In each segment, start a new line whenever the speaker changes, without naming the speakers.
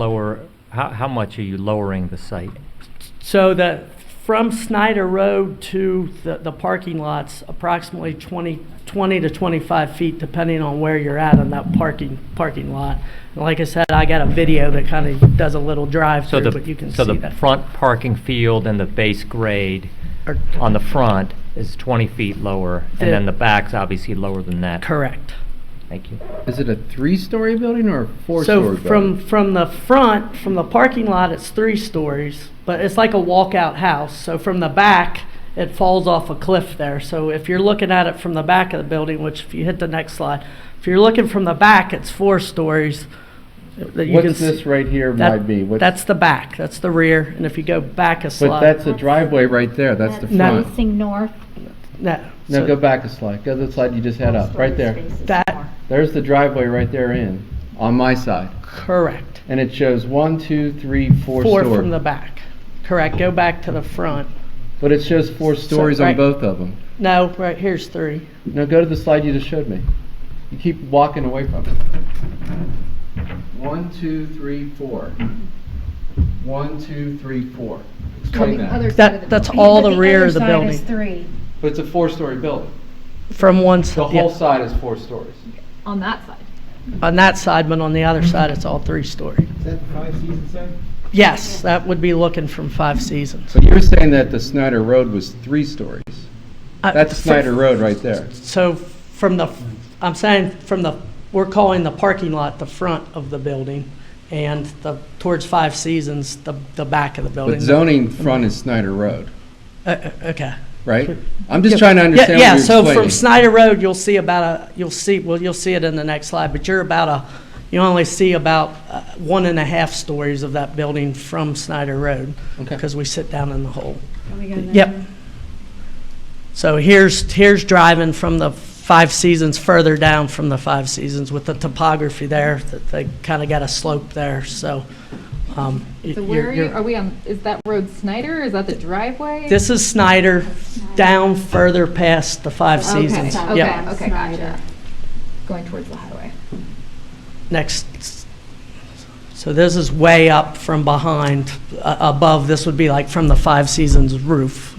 lower, how, how much are you lowering the site?
So the, from Snyder Road to the, the parking lots, approximately 20, 20 to 25 feet, depending on where you're at on that parking, parking lot. And like I said, I got a video that kind of does a little
So
drive-through,
the
but you can
So
see
the
that.
front parking field and the base grade
Or-
on the front is 20 feet lower,
The-
and then the back's obviously lower than that.
Correct.
Thank you.
Is it a three-story building or a
So
four-story
from,
building?
from the front, from the parking lot, it's three stories, but it's like a walkout house. So from the back, it falls off a cliff there. So if you're looking at it from the back of the building, which if you hit the next slide, if you're looking from the back, it's four stories. that you can
What's
s-
this right here
that-
might be? What's-
That's the back, that's the rear, and if you go back a
But
slide.
that's a driveway right there, that's the
No.
front.
Facing north.
No,
No,
so
go back a slide, go to the slide you just had up, right there.
That,
There's the driveway right there in, on my side.
correct.
And it shows one, two, three, four
Four from the
stories.
back, correct. Go back to the front.
But it shows four stories
right-
on both of them.
No, right, here's three.
Now go to the slide you just showed me. You keep walking away from it. One, two, three, four. One, two, three, four. Explain that.
That, that's all the rear of the
Other
building,
side is three,
But it's a four-story building.
from one side.
The whole side is four stories.
on that side.
on that side, but on the other side, it's all three-story.
Mm-hmm. Is that five seasons then?
Yes, that would be looking from Five Seasons.
So you're saying that the Snyder Road was three stories?
Uh,
That's
fr-
Snyder Road right there.
So from the, I'm saying from the, we're calling the parking lot the front of the building, and the, towards Five Seasons, the, the back of the building.
But zoning front is Snyder Road,
Uh, uh, Okay.
right? I'm just trying to
Yeah,
understand
yeah,
what you're
so from
explaining.
Snyder Road, you'll see about a, you'll see, well, you'll see it in the next slide, but you're about a, you only see about uh, one and a half stories of that building from Snyder Road,
Okay.
because we sit down in the hole.
Can we go there?
Yep. So here's, here's driving from the Five Seasons further down from the Five Seasons with the topography there, that they kind of got a slope there, so. um, y-
So
you're-
where are you,
you're-
are we on, is that road Snyder, is that the driveway?
This is Snyder, down further past the Five
Okay,
Seasons.
Okay,
Yep.
okay, gotcha. Going towards the highway.
Next, so this is way up from behind, uh, above, this would be like from the Five Seasons roof.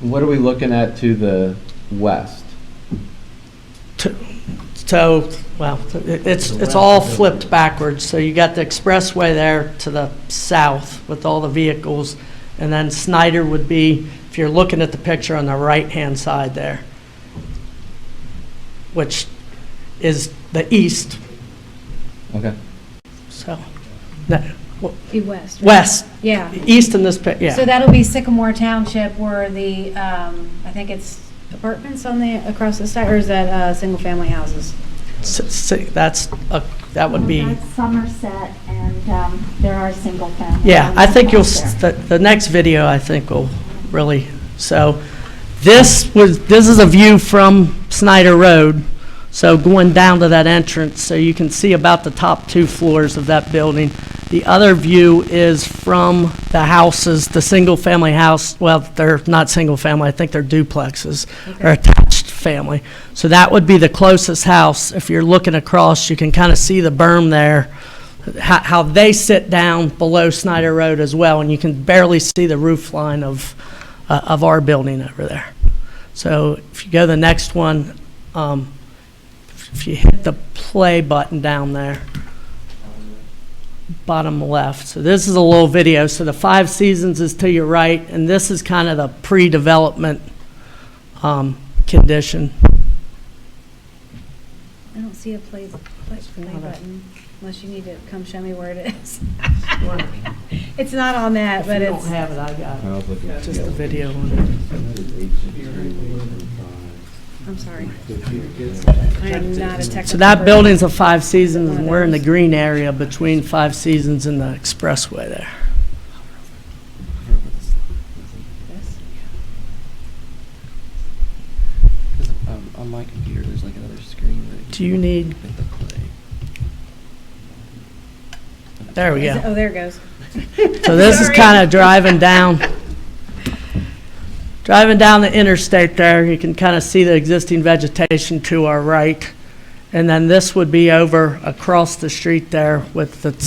What are we looking at to the west?
to- So, well, it- it's, it's all flipped backwards, so you got the expressway there to the south with all the vehicles, and then Snyder would be, if you're looking at the picture on the right-hand side there, which is the east,
Okay.
so, no, w-
Be west. right?
west,
Yeah.
east in this pic,
So
yeah,
that'll be Sycamore Township where the, um, I think it's apartments on the, across the side, or is that, uh, single-family houses?
S- s- that's, a- that would be.
That's Somerset, and um, there are single family.
Yeah, I think you'll, s-
homes out
the, the next video, I think, will really, so, this was, this is a view from Snyder Road, so going down to that entrance, so you can see about the top two floors of that building. The other view is from the houses, the single-family house, well, they're not single-family, I think they're duplexes, or attached family. So that would be the closest house, if you're looking across, you can kind of see the berm there, how, how they sit down below Snyder Road as well, and you can barely see the roof line of, uh, of our building over there. So if you go to the next one, um, if you hit the play button down there, bottom left. So this is a little video. So the Five Seasons is to your right, and this is kind of the pre-development, um, condition.
I don't see a play, play play button, unless you need to come show me where it is. It's not on that, but it's,
have it, I got
I was looking at
Just the
the-
video
I'm sorry. I am not a technical.
So that
person.
building's a Five Seasons, and we're in the green area between Five Seasons and the expressway there.
This?
Um, on my computer, there's like another screen that
Do you need,
with the play.
there we
Is
go.
it- Oh, there it goes.
So this is kind of driving down, driving down the interstate there. You can kind of see the existing vegetation to our right. And then this would be over across the street there with the